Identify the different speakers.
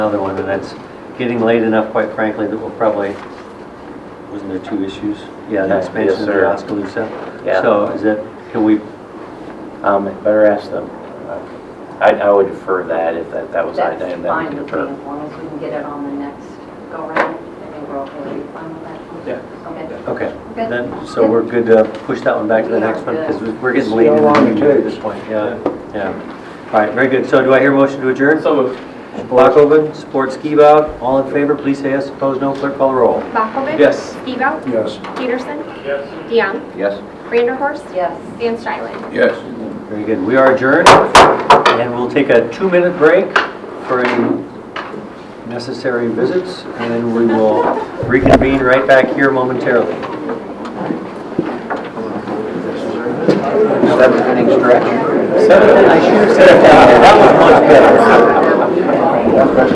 Speaker 1: another one, and that's getting late enough, quite frankly, that we'll probably, wasn't there two issues? Yeah, the
Speaker 2: Yeah,
Speaker 1: expansion
Speaker 2: yes,
Speaker 1: of the
Speaker 2: sir.
Speaker 1: Oskaloosa.
Speaker 2: Yeah.
Speaker 1: So is that, can we,
Speaker 2: Um, better ask them. I, I would defer that if that, that was I,
Speaker 3: That's
Speaker 2: then we
Speaker 3: fine
Speaker 2: could
Speaker 3: with me,
Speaker 2: defer.
Speaker 3: as long as we can get it on the next go-round, I think we're okay, are you fine with that?
Speaker 4: Yeah.
Speaker 3: Okay.
Speaker 1: okay.
Speaker 3: Okay.
Speaker 1: Then, so we're good to push that one back to the
Speaker 3: We are
Speaker 1: next one, because
Speaker 3: good.
Speaker 1: we're getting
Speaker 4: See
Speaker 1: late
Speaker 4: how
Speaker 1: in the
Speaker 4: long it
Speaker 1: meeting at
Speaker 4: takes.
Speaker 1: this point, yeah, yeah. All right, very good. So do I hear a motion to adjourn?
Speaker 4: So moved.
Speaker 1: Blockoven, support Skibout, all in favor, please say yes, opposed no, clerk call the roll.
Speaker 5: Bakovic?
Speaker 4: Yes.
Speaker 5: Ebout?
Speaker 4: Yes.
Speaker 5: Peterson?
Speaker 4: Yes.
Speaker 5: DeYoung?
Speaker 2: Yes?
Speaker 5: Vanderhorst?
Speaker 3: Yes.
Speaker 5: Van Stuylen?
Speaker 2: Yes.
Speaker 1: Very good. We are adjourned, and we'll take a two-minute break for any necessary visits, and then we will reconvene right back here momentarily.
Speaker 2: Seven inning stretch.
Speaker 1: Seven, I should have said that. That was much better.